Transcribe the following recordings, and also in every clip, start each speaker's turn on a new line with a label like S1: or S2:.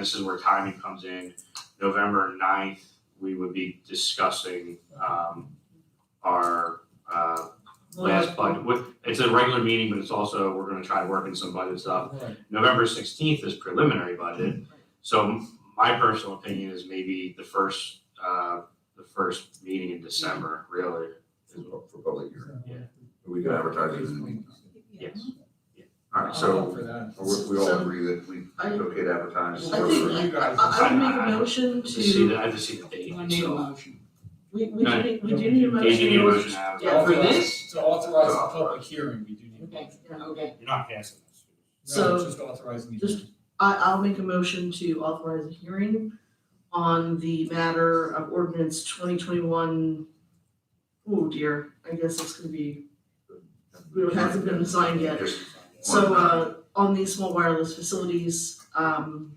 S1: This is where timing comes in. November 9th, we would be discussing, um, our, uh, last budget. What, it's a regular meeting, but it's also, we're gonna try to work in some budget stuff.
S2: Right.
S1: November sixteenth is preliminary budget. So my personal opinion is maybe the first, uh, the first meeting in December, really.
S3: for for public hearing.
S1: Yeah.
S3: We can advertise it in the meeting.
S1: Yes. Yeah. All
S2: I'll
S3: Uh,
S1: right, so
S2: vote for that.
S3: Or if we all agree that we,
S4: Um, I-
S3: it's okay to advertise.
S4: I think-
S3: for-
S2: You guys.
S4: I, I would make
S1: I-
S4: a
S1: I-
S4: motion
S1: I just see
S4: to,
S1: the, I just see the date,
S5: I need a
S1: so.
S5: motion.
S4: we, we
S1: No,
S4: do need, we do need a
S1: Dave, you need a
S4: motion.
S1: motion now.
S4: Yeah, for
S2: Authorize-
S4: this?
S2: To authorize a public hearing, we do need.
S5: Okay,
S2: to-
S5: okay.
S6: You're not passing this.
S2: No,
S4: So-
S2: just authorizing the
S4: Just-
S2: hearing.
S4: I, I'll make a motion to authorize a hearing on the matter of ordinance twenty twenty-one. Oh dear, I guess it's gonna be, it hasn't been signed yet.
S3: Just
S4: So, uh, on these small wireless facilities, um,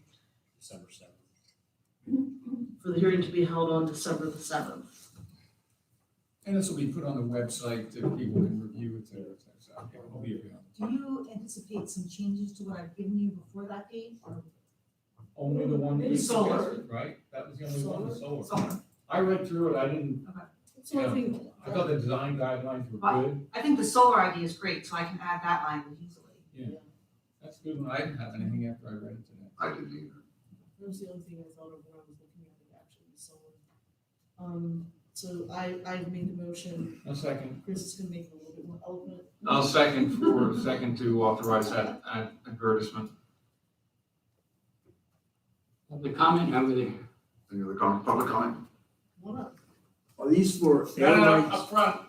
S6: December seventh.
S4: for the hearing to be held on December the seventh.
S2: And this will be put on the website that people can review it there. so it's out there. It'll be available.
S7: Do you anticipate some changes to what I've given you before that date or?
S2: Only the one we
S7: Solar.
S2: suggested, right? That was the only one, the solar.
S7: Solar.
S2: I read through it, I didn't,
S7: It's the only thing.
S2: I thought the design guidelines were good.
S7: I think the solar idea is great, so I can add that language easily.
S2: That's a good one. I didn't have anything after I read it today.
S3: I didn't either.
S8: That was the only thing I thought of when I was looking at it actually, so. Um, so I, I made the motion,
S2: A second.
S8: Chris is gonna make it a little bit more eloquent.
S2: I'll second for, second to authorize that ad- advertisement.
S5: The comment over there.
S3: Any other comment, public comment?
S8: What up?
S9: Are these for
S2: No, no, no,
S9: airlines?
S2: up front.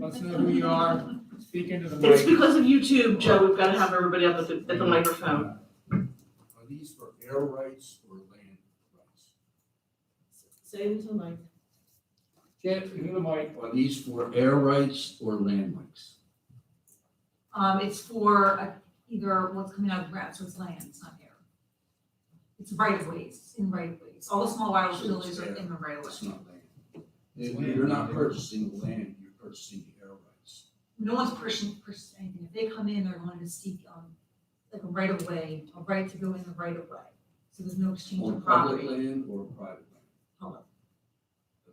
S2: Let's know who you are, speak into the
S4: It's
S2: mic.
S4: because of YouTube, Joe, we've gotta have everybody up at the, at the microphone.
S2: Um,
S9: Are these for air rights or land rights?
S8: Say it into the mic.
S2: Get into the mic.
S9: Are these for air rights or land rights?
S7: Um, it's for uh, either what's coming out of the ground, so it's land, it's not air. It's right of ways, it's in right of ways. All the small wireless
S9: So it's
S7: facilities are in the right of way.
S9: It's not land.
S2: It's
S9: You-
S2: land.
S9: You're not purchasing the land, you're purchasing the air rights.
S7: No one's pushing, pushing anything. If they come in, they're going to seek, um, like a right of way, a right to go in the right of way. So there's no exchange
S9: On
S7: of
S9: public
S7: property.
S9: land or private land?
S7: Public.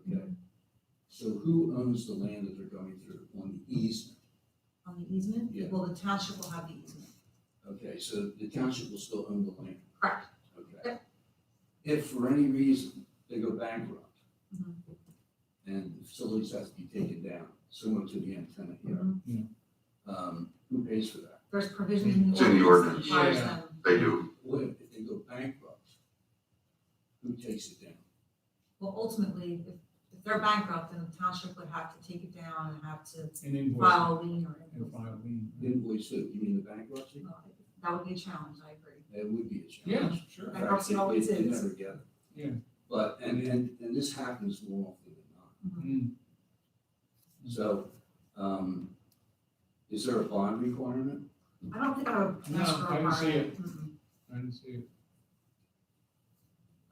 S9: Okay. So who owns the land that they're going through on the easement?
S7: On the easement,
S9: Yeah.
S7: well, the township will have the easement.
S9: Okay, so the township will still own the land?
S7: Correct.
S9: Okay. If for any reason they go bankrupt
S7: Mhm.
S9: and the facilities have to be taken down, similar to the antenna here, um, who pays for that?
S7: There's provisions in
S3: It's
S7: Mm, the
S3: in the
S7: ordinance that
S2: ordinance.
S7: requires
S2: Yeah.
S7: them.
S3: They do.
S9: What if they go bankrupt? Who takes it down?
S7: Well, ultimately, if, if they're bankrupt, then the township would have to take it down and have to
S2: An invoice.
S7: file a lien or
S2: And
S7: invoice.
S2: file a lien.
S9: Invoice who? You mean the bankruptcy?
S7: Well, That would be a challenge, I agree.
S9: That would be a
S2: Yeah,
S9: challenge.
S2: sure.
S7: I don't see how
S9: They-
S7: it
S9: They
S7: is.
S9: never get it.
S2: Yeah.
S9: But, and, and, and this happens more often than not.
S7: Mm-hmm.
S2: Mm.
S9: So, um, is there a bond requirement?
S7: I don't think I would.
S2: No,
S7: ask for a
S2: I didn't see
S7: buyer.
S2: it.
S7: Mm-mm.
S2: I didn't see it.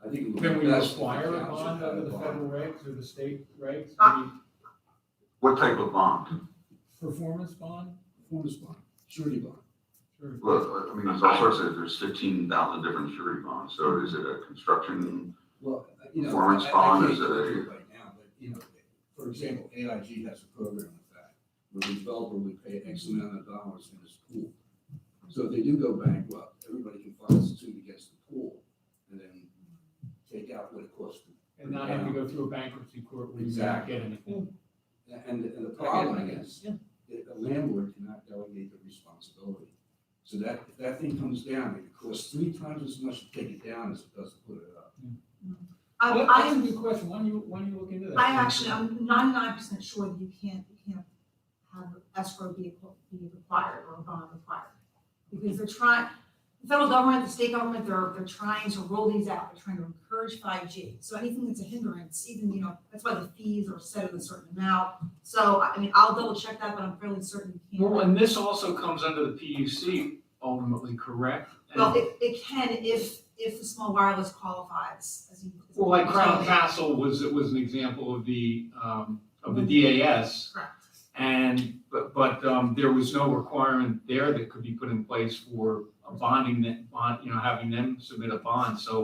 S9: I think. it would be
S2: Can we
S9: best if the
S2: require a
S9: township
S2: bond
S9: had a
S2: under the
S9: bond.
S2: federal regs or the state regs?
S7: Uh,
S4: Ah.
S3: What type of bond?
S2: Maybe Performance bond?
S9: Performance bond, surety bond.
S2: Sure.
S3: Well, I mean, there's all sorts of, there's fifteen thousand different surety bonds. So is it a construction?
S9: Well, you know.
S3: Performance
S9: I- I
S3: bond
S9: can't
S3: is a-
S9: go through it Right now, but, you know, for example, AIG has a program with that, where the developer would pay X amount of dollars in his pool. So if they do go bankrupt, everybody can file suit against the pool and then take out what it costs. them.
S2: And not have to go through a bankruptcy court where you don't
S9: Exactly.
S2: get anything.
S9: And, and the problem is,
S7: Um,
S8: Yeah.
S9: that a landlord cannot delegate the responsibility. So that, if that thing comes down, it costs three times as much to take it down as it does to put it up.
S7: Um, I,
S2: Well,
S7: I
S2: That's a good question. Why don't you, why don't you look into that?
S7: I actually, I'm ninety-nine percent sure that you can't, you can't have escrow be, be required or a bond required. Because they're trying, the federal government, the state government, they're, they're trying to roll these out, they're trying to encourage five G. So anything that's a hindrance, even, you know, that's why the fees are set at a certain amount. So, I I mean, I'll double check that, but I'm fairly certain you can't.
S10: Well, and this also comes under the PUC ultimately, correct? And-
S7: Well, it, it can if, if the small wireless qualifies as you.
S10: Well, like Crown Castle was, was an example of the, um, of the DAS.
S7: Correct.
S2: And, but, but, um, there was no requirement there that could be put in place for a bonding that, bond, you know, having them submit a bond, so